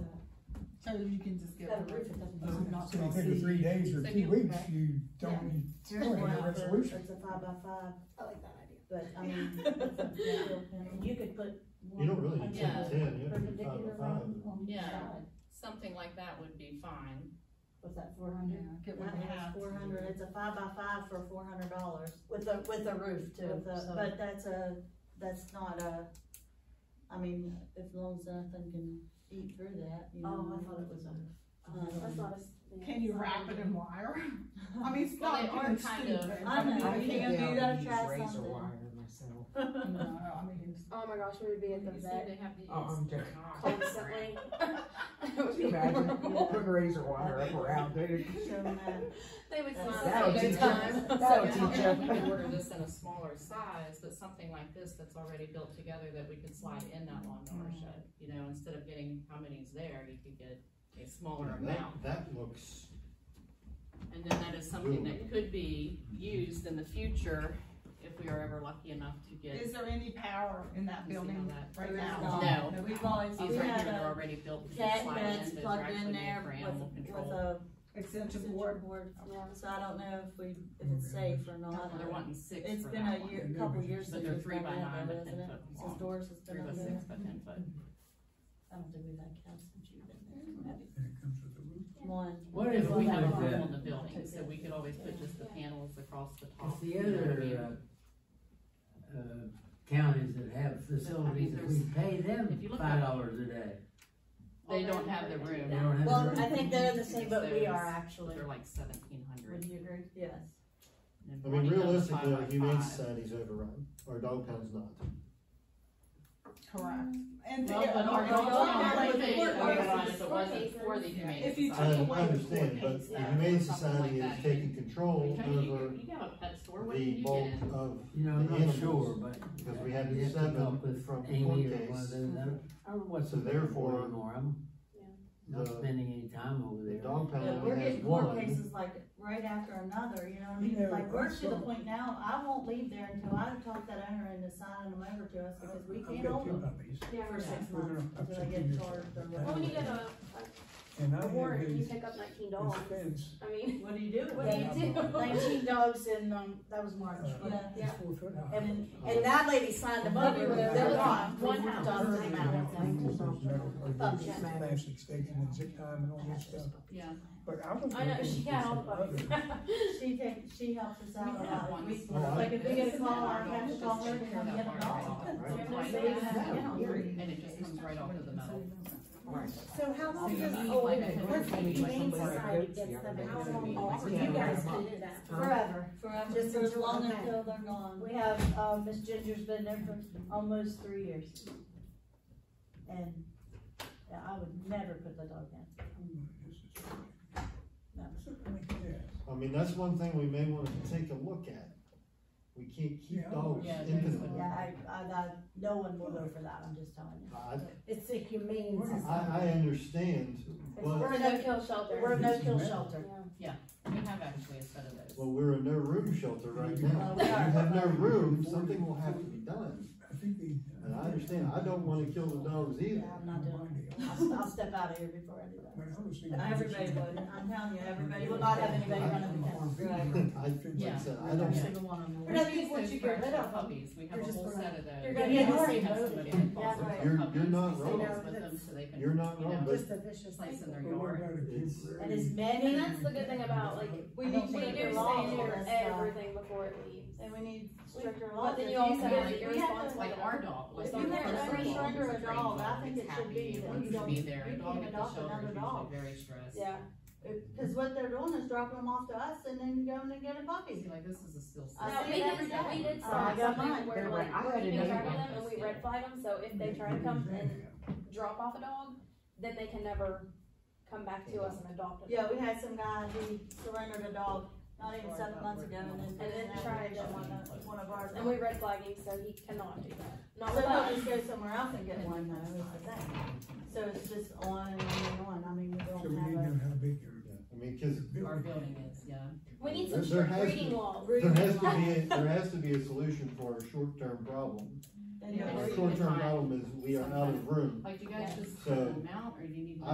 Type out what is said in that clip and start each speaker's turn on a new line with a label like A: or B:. A: So you can just get.
B: Got a roof that doesn't-
A: I'm not
C: So you
A: gonna
C: think of
A: see.
C: three days or
D: So
C: two
D: you-
C: weeks, you don't,
B: It's
C: you don't need a resolution.
B: It's a five by five,
E: I like that idea.
B: but I mean, it's a real panel. you could put.
F: You don't really need
B: one
F: ten by
D: Yeah.
F: ten, you have to do five
B: Perpendicular
F: by five.
B: line on each
D: Yeah.
B: side.
D: Something like that would be fine.
B: Was that four
A: Yeah,
B: hundred?
A: get
B: I
A: what
B: think
A: they
B: it's
A: have.
B: four hundred, it's a five by five for four hundred dollars. With a, with a roof
E: too,
B: With a,
E: so-
B: but that's a, that's not a, I mean, if long as nothing can eat through that, you know.
E: Oh, I thought it was a.
B: Um,
A: Can you wrap it in wire? I mean, it's
D: Well,
A: not.
D: they are
A: even
D: kind
A: stupid.
D: of-
B: I know.
A: I mean,
B: Yeah.
A: you
B: do that, try
G: Razor
B: something.
G: wire myself.
A: can't- No, I mean, it's-
E: Oh my gosh, we would be at the
D: You see,
E: vet
D: they have these
G: Oh, I'm joking.
D: knobs.
E: constantly. It would
G: Could
E: be
G: you imagine,
E: horrible.
G: put razor wire up around there.
B: So, uh,
D: They would
B: That'll
D: constantly
G: teach
D: go
G: them.
D: down.
G: That'll
D: So
G: teach
D: now
G: them.
D: We can order this in a smaller size, but something like this that's already built together that we could slide in that lawnmower
B: Mm.
D: shed. You know, instead of getting how many's there, you could get a smaller
F: Mm-hmm.
D: amount.
F: That, that looks,
D: And then that is something that could be used in the future if we are ever lucky enough to
A: is
D: get.
A: there any power in that
D: You see how
A: building
D: that-
A: right
B: There is
A: now?
D: not.
A: No, we've always,
D: These
B: We
D: right
B: had
D: here
B: a
D: are already built. to
B: cat
D: slide
B: beds
D: Those are
B: plugged
D: actually
B: in
D: made
B: there
D: for
B: with-
D: animal
B: with
D: control.
B: a
A: except
B: central
A: board,
B: board,
E: Yeah.
B: so I don't know if we, if it's safe or not.
D: They're wanting six
B: It's
D: for
B: been
D: that
B: a
D: one.
B: year, a couple years
D: But
B: since
D: they're
B: we've
D: three
B: been
D: by
B: out
D: nine,
B: there,
D: but
B: isn't
D: ten
B: it?
D: foot
B: Since
D: long.
B: Doris has been
D: Three
B: out
D: by
B: there.
D: six by ten foot.
B: I don't think we've had cats since you've been there.
C: And it comes with a roof.
B: One.
G: What
D: If
G: if
D: we have a
G: did
D: roof
G: that?
D: on the building, so we could always put just the panels across the
H: It's
D: top.
H: the
D: you know what I mean?
H: other, uh, uh, counties that have facilities that we pay
D: If
H: them
D: you look
H: five
D: up-
H: dollars a day.
D: They don't have the
H: They
D: room,
H: don't have the
B: Well,
H: room.
B: I think they're the same, but we are actually.
D: they're like seventeen hundred.
B: Would you agree? Yes.
F: I mean, realistically, the Humane Society's overrun, or Dog Pound's not.
A: correct? And
D: Well,
A: yeah,
D: but our
A: our
D: dog
A: dog-
D: pound would
A: like,
D: be
A: we're-
D: overrun
A: our-
D: if it wasn't for the humane.
A: If you took
F: I,
D: Society.
F: I
A: away the
F: understand, but the
A: coordinates,
F: Humane
D: or something
F: Society
D: like
F: is
D: that.
F: taking control
D: Tony,
F: over
D: you, you have a pet store, what do
F: the
D: you
F: bulk
D: get?
F: of,
H: You know, I'm
F: the
H: not sure,
F: animals,
H: but.
F: because we had
H: you have to
F: seven
H: talk with
F: from the
H: Amy
F: court
H: or one of
F: case.
H: those other- I don't know what's
F: So
H: the
F: therefore,
H: therefore, I'm not
F: the-
H: spending any time over
F: the
H: there.
F: Dog Pound
B: Yeah,
F: only
B: we're
F: has
B: getting
F: Uh, one.
B: court cases like right after another, you know what I
C: You
B: mean?
C: know,
B: Like, we're to the
C: also-
B: point now, I won't leave there until I talk that owner into signing them over to us because we
C: I've
B: can't
C: got
B: hold
C: two
B: them
C: puppies,
E: Yeah,
B: for six
C: We're gonna-
B: months
C: I'm
B: until they
C: taking
B: get
C: this
B: charged or
C: one.
E: well, when you
B: whatever.
E: get a,
C: and I
E: a
C: had
E: warrant, you
C: these,
E: pick up nineteen
C: this
E: dogs,
C: fence.
E: I mean,
B: What do you do with
E: what do
B: them?
E: you do?
I: Nineteen dogs in, um, that was March.
C: uh,
B: Yeah.
C: It's uh, four foot high.
B: And, and that lady signed them over,
I: Everywhere.
B: they're gone.
I: One house.
C: Currently, we have rules, there's metal, or there's plastic stakes and zip time and all this stuff,
D: Yeah,
C: but I was.
E: I know, she had all
C: looking
E: puppies.
C: for some other-
B: She takes, she helps us
D: we
B: out a
D: have
B: lot.
D: one.
B: We-
D: store
B: like, if we
D: this,
B: get a call, I
D: and
B: have to
D: it's
B: call
D: just
B: her to come
D: that
B: get
D: far
B: a dog.
D: out.
F: Right.
D: It's like
B: They
D: that,
B: have animals.
D: And it just comes right off of the metal.
I: So how long does,
D: Yeah.
I: oh,
D: Like a
I: what's the
D: company, like
I: humane
D: somewhere.
I: society gets them, how long off do
G: Yeah.
I: you guys do that?
B: Forever, forever,
I: Just
B: just as long
I: until-
B: until they're gone.
I: We have, um, Miss Ginger's been there for almost three years. And yeah, I would never put the dog down.
C: Oh, This is- Yeah.
F: I mean, that's one thing we may wanna take a look at. We can't
C: Yeah.
F: keep dogs
D: Yeah,
F: infinitely.
I: Yeah, I, I, that, no one will go for that, I'm just telling you.
F: I,
I: It's a humane
C: Where is
F: I,
I: society.
F: I understand,
I: We're
F: but,
I: a no-kill shelter. We're a no-kill shelter.
D: We have actually a set of those.
F: well, we're in no room shelter right now.
B: Well,
F: If
B: we
F: you
B: are.
F: have no room, something will have to be done.
C: I think uh, they.
F: And I understand, I don't wanna kill the dogs either.
I: Yeah, I'm not doing it. I'll, I'll step out of here before I do that.
C: When I was thinking-
B: Everybody would, I'm telling you, everybody would not have anybody running the fence.
F: I, like I said, I
D: Yeah.
F: don't,
D: single one on the
I: But I
D: list.
I: think once
D: Those
I: you get rid of them,
D: Puppies, we have a
I: you're just
D: whole
I: gonna-
D: set of those.
I: you're gonna
D: We
B: get
D: always
I: worried.
D: have somebody that
I: Yeah,
D: fosters
I: right.
F: You're-
D: puppies
F: you're not
D: to
F: wrong.
D: sit with them so they can,
F: you're not
D: you know,
F: wrong, but
I: Just a vicious
D: Place in
I: cycle.
D: their
C: But
D: yard.
C: what about a
F: It's-
C: temporary-
B: And as many,
E: And that's the good thing about, like,
B: we
I: I don't
B: need to
I: think
E: we
B: make
I: they're
B: it
E: do
I: law
E: stand
B: lawful.
E: over
B: that's, uh,
E: everything before it leaves.
B: And we need stricter laws.
E: But then
B: If
E: you also
B: have-
E: have the
B: if you have
E: irresponsible.
B: to-
D: Like our dog was.
B: If
D: our
B: you have
D: first
B: a
D: dog
B: strong
D: was a
B: or a
D: trained
B: dog, I
D: dog.
B: think
D: It's
B: it should
D: happy.
B: be
D: It
B: that
D: wants
B: you
D: to
B: don't-
D: be there.
B: you
D: A dog
B: can't
D: at the
B: adopt
D: shelter is
B: another
D: usually
B: dog.
D: Very stressed.
E: Yeah,
B: Cause what they're doing is dropping them off to us and then going and getting a
D: See,
B: puppy.
D: like this is a still.
B: I
E: no,
B: see
E: we
B: it every
E: did,
B: day.
E: we did
B: Uh,
E: sign
B: I got
E: something
B: mine.
E: where
H: They're
E: like,
H: right. I
E: we
H: had
E: keep in
H: another
E: track of
D: one.
E: them and we red flag them, so if they try to come and drop off a dog, then they can never come back to us and adopt them.
B: Yeah, we had some guy who surrendered a dog not even seven months ago and then.
E: And then tried to
B: get one of, one of ours.
E: And we red flag him, so he cannot do that. Not
B: So
E: with
B: they'll
E: us.
B: just go somewhere else and get one though, is the thing. So it's just on and on and on, I mean, we
C: So we
B: don't
C: need to
B: have a.
C: know how big your.
F: yeah, I mean, cause
D: Our building is, yeah.
E: We need
F: There-
E: some
F: there
E: strict
F: has to
E: breeding
F: be-
E: laws.
F: there has to be, a- there has to be a solution for our short-term problem.
B: They don't-
F: Our short-term problem is we are out of room.
D: Like, do you guys just
F: So,
D: cut them out or do you need?